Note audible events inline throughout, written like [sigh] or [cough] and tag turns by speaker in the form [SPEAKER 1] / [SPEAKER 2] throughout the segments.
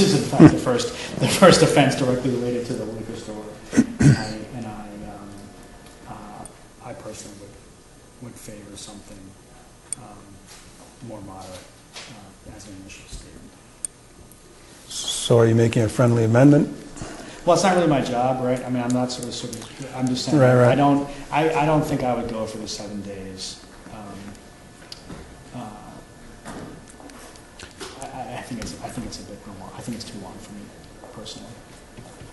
[SPEAKER 1] is in fact the first, the first offense directly related to the liquor store. I- And I, um, uh, I personally would, would favor something um, more moderate uh, as an initial statement.
[SPEAKER 2] So are you making a friendly amendment?
[SPEAKER 1] Well, it's not really my job, right? I mean, I'm not sort of, sort of, I'm just saying,
[SPEAKER 2] Right, right.
[SPEAKER 1] I don't, I, I don't think I would go for the seven days. Um, uh, I, I I think it's, I think it's a bit long, I think it's too long for me personally.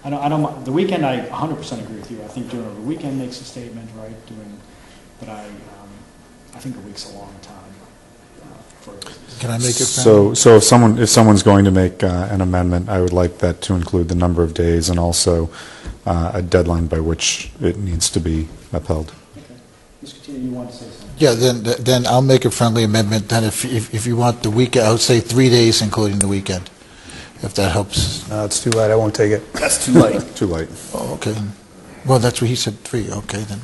[SPEAKER 1] I don't, I don't, mi- the weekend, I hundred percent agree with you. I think during the weekend makes a statement, right, doing, but I, um, I think a week's a long time uh, for,
[SPEAKER 3] Can I make it?
[SPEAKER 4] So, so if someone, if someone's going to make uh, an amendment, I would like that to include the number of days and also uh, a deadline by which it needs to be upheld.
[SPEAKER 1] okay. Ms. Katina, you want to say something?
[SPEAKER 3] Yeah, then, then I'll make a friendly amendment, then if, if if you want the weekend, I would say three days including the weekend, if that helps.
[SPEAKER 2] No, it's too late, I won't take it.
[SPEAKER 5] That's too late.
[SPEAKER 4] [laughs] Too late.
[SPEAKER 3] Oh, okay. Well, that's what he said, three, okay, then.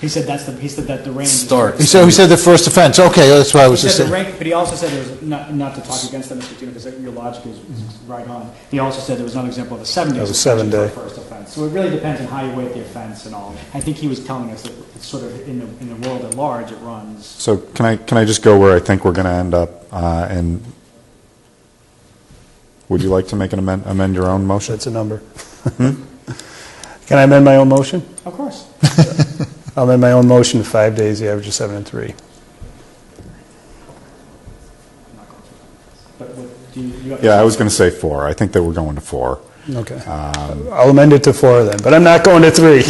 [SPEAKER 1] He said that's the, he said that the range is.
[SPEAKER 5] Start.
[SPEAKER 3] He said, he said the first offense, okay, that's what I was
[SPEAKER 1] He
[SPEAKER 3] just
[SPEAKER 1] said the
[SPEAKER 3] saying.
[SPEAKER 1] rank, but he also said there was, not, not to talk against that, Mr. Tino, because your logic is is right on. He also said there was another example of a seven day.
[SPEAKER 2] Of a seven
[SPEAKER 1] suspension
[SPEAKER 2] day.
[SPEAKER 1] for a First offense. So it really depends on how you weight the offense and all. I think he was telling us that it's sort of, in the, in the world at large, it runs.
[SPEAKER 4] So can I, can I just go where I think we're going to end up? uh, And would you like to make an amend, amend your own motion?
[SPEAKER 2] That's a number.
[SPEAKER 1] Hmm?
[SPEAKER 2] Can I amend my own motion?
[SPEAKER 1] Of course. [laughs]
[SPEAKER 2] I'll amend my own motion to five days, the average of seven and three.
[SPEAKER 1] I'm not going to. But what, do you? you-
[SPEAKER 4] Yeah, I was going to say four. I think that we're going to four.
[SPEAKER 2] Okay.
[SPEAKER 5] Um,
[SPEAKER 2] I'll amend it to four then, but I'm not going to three.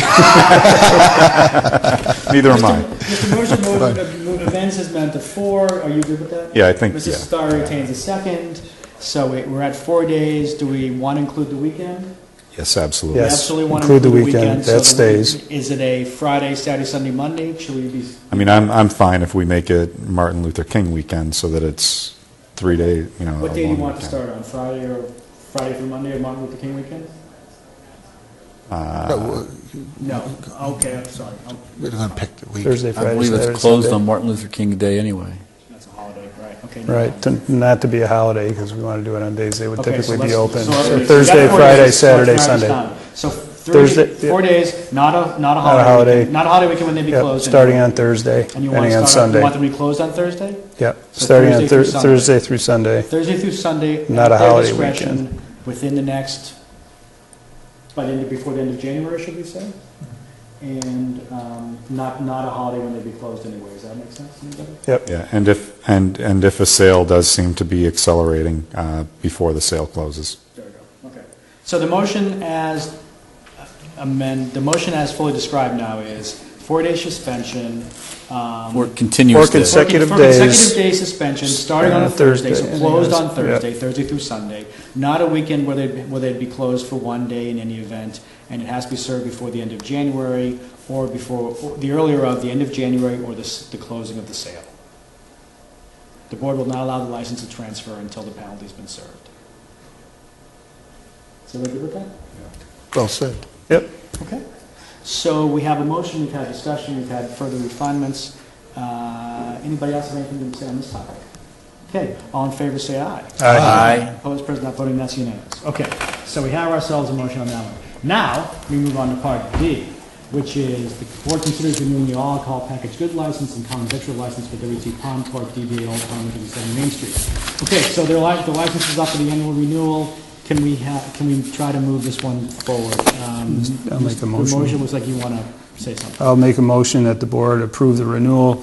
[SPEAKER 4] Neither am I.
[SPEAKER 1] Mr.
[SPEAKER 4] [laughs]
[SPEAKER 1] Mosher moved- uh, moved- amends his amendment to four. Are you good with that?
[SPEAKER 4] Yeah, I think-
[SPEAKER 1] Mrs.
[SPEAKER 4] yeah.
[SPEAKER 1] Starr retains a second. So we- we're at four days. Do we want to include the weekend?
[SPEAKER 4] Yes, absolutely.
[SPEAKER 2] Yes.
[SPEAKER 1] Absolutely want to
[SPEAKER 2] include the weekend.
[SPEAKER 1] so
[SPEAKER 2] That
[SPEAKER 1] the week-
[SPEAKER 2] stays.
[SPEAKER 1] Is it a Friday, Saturday, Sunday, Monday? Should we be,
[SPEAKER 4] I mean, I'm, I'm fine if we make it Martin Luther King weekend so that it's three days, you know.
[SPEAKER 1] what
[SPEAKER 4] a
[SPEAKER 1] day do you
[SPEAKER 4] long
[SPEAKER 1] want to
[SPEAKER 4] weekend.
[SPEAKER 1] start on, Friday or Friday through Monday or Martin Luther King weekend?
[SPEAKER 3] No, we're-
[SPEAKER 1] No, okay, I'm sorry, Oh, I'm-
[SPEAKER 3] We're going to pick the week.
[SPEAKER 2] [laughs] Thursday,
[SPEAKER 5] I
[SPEAKER 2] Friday,
[SPEAKER 5] believe
[SPEAKER 2] Saturday,
[SPEAKER 5] it's closed on
[SPEAKER 2] Sunday.
[SPEAKER 5] Martin Luther King Day anyway.
[SPEAKER 1] that's a holiday, right, okay. no.
[SPEAKER 2] Right, to- not to be a holiday, because we want to do it on days they would
[SPEAKER 1] Okay, so
[SPEAKER 2] typically be
[SPEAKER 1] let's-
[SPEAKER 2] open.
[SPEAKER 1] so let's-
[SPEAKER 2] So Thursday,
[SPEAKER 1] that's four
[SPEAKER 2] Friday,
[SPEAKER 1] days, so let's narrow
[SPEAKER 2] Saturday,
[SPEAKER 1] this
[SPEAKER 2] Sunday.
[SPEAKER 1] down. So three,
[SPEAKER 2] Thursday, yeah.
[SPEAKER 1] four days, not a, not a
[SPEAKER 2] Not a
[SPEAKER 1] holiday
[SPEAKER 2] holiday.
[SPEAKER 1] weekend, not a holiday weekend when they be
[SPEAKER 2] Yep,
[SPEAKER 1] closed.
[SPEAKER 2] starting on Thursday,
[SPEAKER 1] And you want
[SPEAKER 2] ending
[SPEAKER 1] to start, on-
[SPEAKER 2] on
[SPEAKER 1] you
[SPEAKER 2] Sunday.
[SPEAKER 1] want them to be closed on Thursday?
[SPEAKER 2] Yep,
[SPEAKER 1] So
[SPEAKER 2] starting on
[SPEAKER 1] Thursday
[SPEAKER 2] Thur-
[SPEAKER 1] through Sunday.
[SPEAKER 2] Thursday through Sunday.
[SPEAKER 1] Thursday through Sunday. at
[SPEAKER 2] Not a
[SPEAKER 1] their
[SPEAKER 2] holiday
[SPEAKER 1] discretion, Within the next, by the end, of- before the end of January, should we say? And um, not, not a holiday when they'd be closed anyway, does that make sense? to anybody?
[SPEAKER 2] Yep,
[SPEAKER 4] Yeah, and if, and, and if a sale does seem to be accelerating uh, before the sale closes.
[SPEAKER 1] There we go, okay. So the motion as amend, the motion as fully described now is four-day suspension. um,
[SPEAKER 5] Or
[SPEAKER 1] for-
[SPEAKER 5] continuous
[SPEAKER 2] Or
[SPEAKER 5] day.
[SPEAKER 2] consec- Consecutive
[SPEAKER 1] for
[SPEAKER 2] days. uh,
[SPEAKER 1] Consecutive day suspension, starting on a Thursday, so
[SPEAKER 2] Thursday.
[SPEAKER 1] closed on
[SPEAKER 2] Yep.
[SPEAKER 1] Thursday, Thursday through Sunday. Not a weekend where they'd, where they'd be closed for one day in any event, and it has to be served before the end of January, or before, or the earlier of the end of January, or the, s- the closing of the sale. The board will not allow the license to transfer until the penalty's been served. So we good with that?
[SPEAKER 3] Well said.
[SPEAKER 2] yep.
[SPEAKER 1] Okay. So we have a motion, we've had discussion, we've had further refinements. Uh, Anybody else have anything to say on this topic? Okay, all in favor, say aye.
[SPEAKER 5] Aye.
[SPEAKER 1] Opposed, present, not voting, that's unanimous. Okay, so we have ourselves a motion on that one. Now, we move on to part D, which is the board considers renewing the all alcohol package good license and common victual license for WT Pond Park DBA Old Town 157 Main Street. Okay, so their li- the license is up for the annual renewal. Can we have, can we try to move this one forward? Um,
[SPEAKER 2] I'll make
[SPEAKER 1] The
[SPEAKER 2] the motion.
[SPEAKER 1] motion was like you want to say something.
[SPEAKER 2] I'll make a motion that the board approve the renewal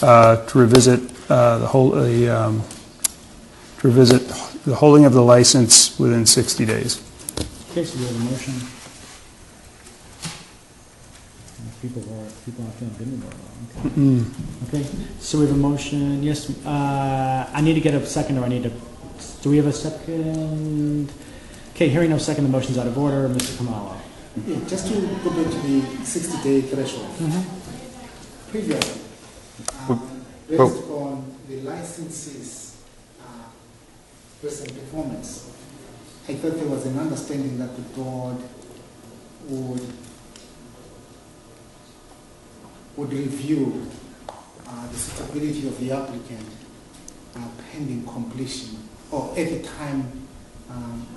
[SPEAKER 2] uh, to revisit uh, the whole, the, um, to revisit the holding of the license within 60 days.
[SPEAKER 1] Okay, so we have a motion. People are, people are feeling good about it. Okay. Okay, so we have a motion, yes, uh, I need to get a second, or I need to, do we have a second? Okay, hearing no second, the motion's out of order, Mr. Kamalo.
[SPEAKER 6] Yeah, just to go back to the 60-day threshold. Previously, um, based
[SPEAKER 4] but-
[SPEAKER 6] on the licensee's uh, recent performance, I thought there was an understanding that the board would, would review uh, the suitability of the applicant uh, pending completion, or at the time um,